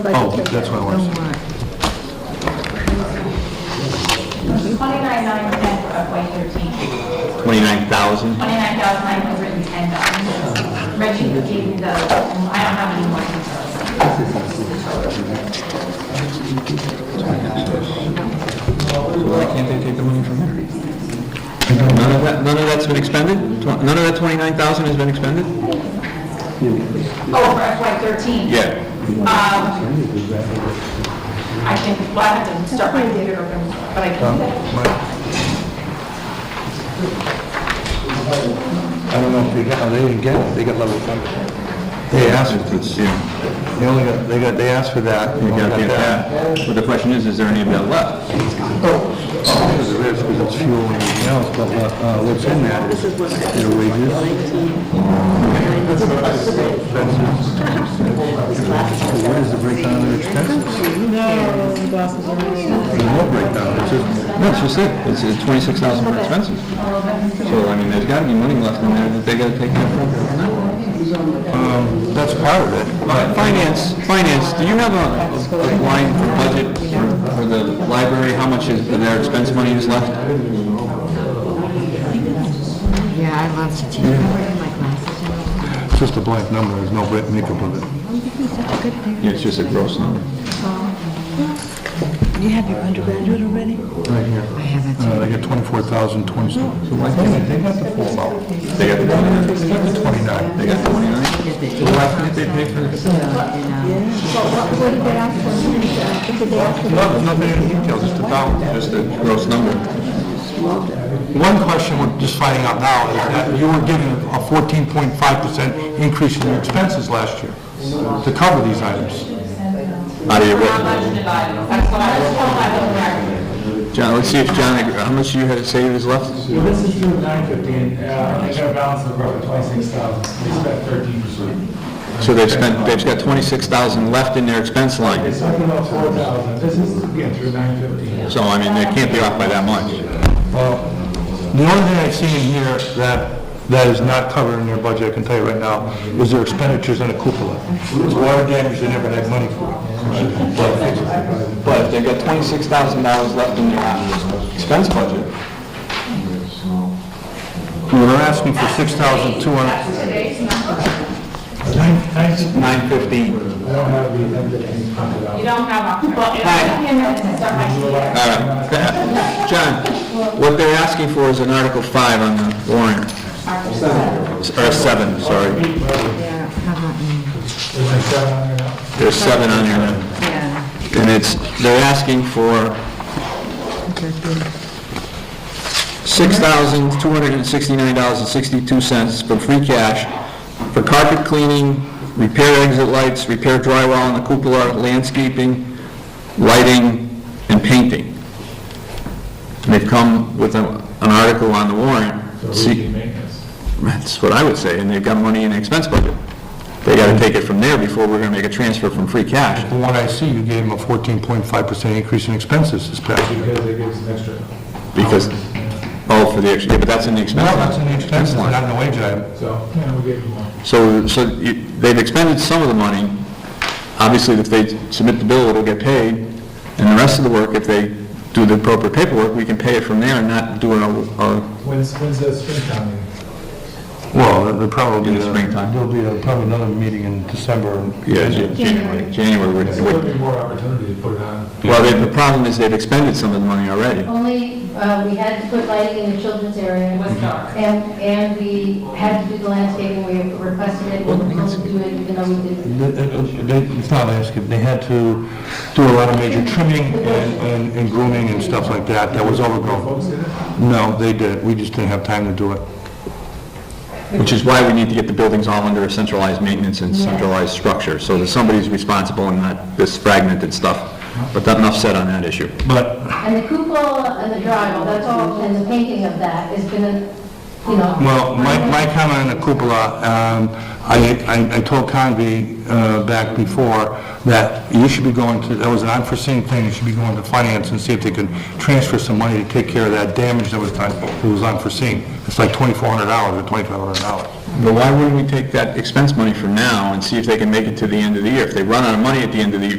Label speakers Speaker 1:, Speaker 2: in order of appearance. Speaker 1: Oh, that's what I was.
Speaker 2: Twenty-nine nine ten for FY
Speaker 3: 29,000?
Speaker 2: thirteen, twenty-nine thousand nine hundred and ten dollars. Reggie gave me the, I don't have any more details.
Speaker 3: None of that, none of that's been expended? Tw- None of that 29,000 has been expended?
Speaker 2: Oh, for FY thirteen? Um, I can, well, I have to start my computer, open, but I
Speaker 4: Um,
Speaker 2: can do that.
Speaker 1: I don't know if they got, oh, they didn't get it, they got level funded. They asked for this. They only got, they got, they asked for that.
Speaker 3: You got the- But the question is, is there any of that left?
Speaker 1: Oh, Because it is, because it's fuel and everything else, but, uh, what's in that is their wages. So What is the breakdown of their expenses? There's no breakdown, it's just,
Speaker 3: No, it's just it, it's it's 26,000 for expenses. So, I mean, there's gotta be money left in there that they gotta take care of.
Speaker 1: um, that's part of it.
Speaker 3: Uh, Finance, finance, do you have a a line for budget for- for the library, how much is of their expense money is left?
Speaker 5: Yeah, I lost it. I'm wearing my glasses.
Speaker 1: It's just a blank number, there's no break- makeup of it.
Speaker 3: Yeah, it's just a gross number.
Speaker 5: You have your undergraduate already?
Speaker 1: Right here.
Speaker 5: I haven't.
Speaker 1: Uh, they got twenty-four thousand, twenty, so why can't they, they got the full amount,
Speaker 3: They got the
Speaker 1: they
Speaker 3: twenty-nine?
Speaker 1: got the twenty-nine.
Speaker 3: They got the twenty-nine? Why can't they pay for it?
Speaker 1: No, Nothing in detail, just the dollar.
Speaker 3: Just a gross number.
Speaker 4: One question we're just finding out now is that you were given a fourteen point five percent increase in your expenses last year to cover these items.
Speaker 3: Out of your what?
Speaker 2: How much did I, that's what I was told by the mayor.
Speaker 3: John, let's see if John, ag- how much you had to say was left?
Speaker 6: So this is June nine fifteen, uh, I got a balance of roughly twenty-six thousand, we spent thirteen percent.
Speaker 3: So they've spent, they've got twenty-six thousand left in their expense line.
Speaker 6: It's something about four thousand, this is, again, through nine fifteen.
Speaker 3: So, I mean, they can't be off by that much.
Speaker 4: The only thing I see in here that, that is not covered in your budget, I can tell you right now, is their expenditures on the cupola. It's water damage, they never had money for it. But-
Speaker 3: But if they've got twenty-six thousand dollars left in their expense budget.
Speaker 4: Well, they're asking for six thousand two hundred,
Speaker 2: That's today's number.
Speaker 3: Nine fifteen.
Speaker 6: I don't have the end of any funded out.
Speaker 2: You don't have October. Well, I'm gonna start my computer.
Speaker 3: All right. John, what they're asking for is an Article five on the warrant. Or seven, sorry.
Speaker 5: Yeah, how about me?
Speaker 6: There's like seven on there now.
Speaker 3: There's seven on here.
Speaker 5: Yeah.
Speaker 3: And it's, they're asking for $6,269.62 for free cash for carpet cleaning, repair exit lights, repair drywall on the cupola, landscaping, lighting, and painting. And They've come with a- an article on the warrant.
Speaker 6: So we
Speaker 3: See,
Speaker 6: can make this.
Speaker 3: That's what I would say, and they've got money in the expense budget. They gotta take it from there before we're gonna make a transfer from free cash.
Speaker 4: from what I see, you gave them a fourteen point five percent increase in expenses this past year.
Speaker 6: Because they gave us an extra.
Speaker 3: Because, oh, for the, ex- yeah, but that's in the expense
Speaker 4: No,
Speaker 3: line.
Speaker 4: that's in the expenses,
Speaker 3: line.
Speaker 4: not in the wage item.
Speaker 6: So, you know, we gave them one.
Speaker 3: So, so you- they've expended some of the money. Obviously, if they submit the bill, it'll get paid, and the rest of the work, if they do the appropriate paperwork, we can pay it from there and not do it all- all
Speaker 6: When's, when's the Springtown meeting?
Speaker 4: Well, there'll probably
Speaker 3: in
Speaker 4: be,
Speaker 3: the
Speaker 4: a-
Speaker 3: springtime.
Speaker 4: there'll be a- probably another meeting in December.
Speaker 3: uh, Yeah, Jan- January, January.
Speaker 6: There's
Speaker 3: we're-
Speaker 6: going to
Speaker 3: we're-
Speaker 6: be more opportunity to put it on.
Speaker 3: Well, they- the problem is they've expended some of the money already.
Speaker 7: Only, uh, we had to put lighting in the children's area.
Speaker 2: It was dark.
Speaker 7: And, and we had to do the landscaping, we requested it, we were supposed to do it, even though we didn't.
Speaker 4: They- they- It's not asking, they had to do a lot of major trimming and- and and grooming and stuff like that, that was overgrown.
Speaker 6: Folks did it?
Speaker 4: No, they did, we just didn't have time to do it.
Speaker 3: Which is why we need to get the buildings all under a centralized maintenance and centralized structure, so that somebody's responsible and not this fragmented stuff. But that- enough said on that issue.
Speaker 4: But
Speaker 7: And the cupola and the drywall, that's all, and the painting of that is gonna, you know.
Speaker 4: Well, my, my comment on the cupola, um, I, I- I told Convy, uh, back before that you should be going to, that was an unforeseen thing, you should be going to finance and see if they could transfer some money to take care of that damage that was done, it was unforeseen. It's like twenty-four hundred dollars or twenty-five hundred dollars.
Speaker 3: But why wouldn't we take that expense money from now and see if they can make it to the end of the year? If they run out of money at the end of the year,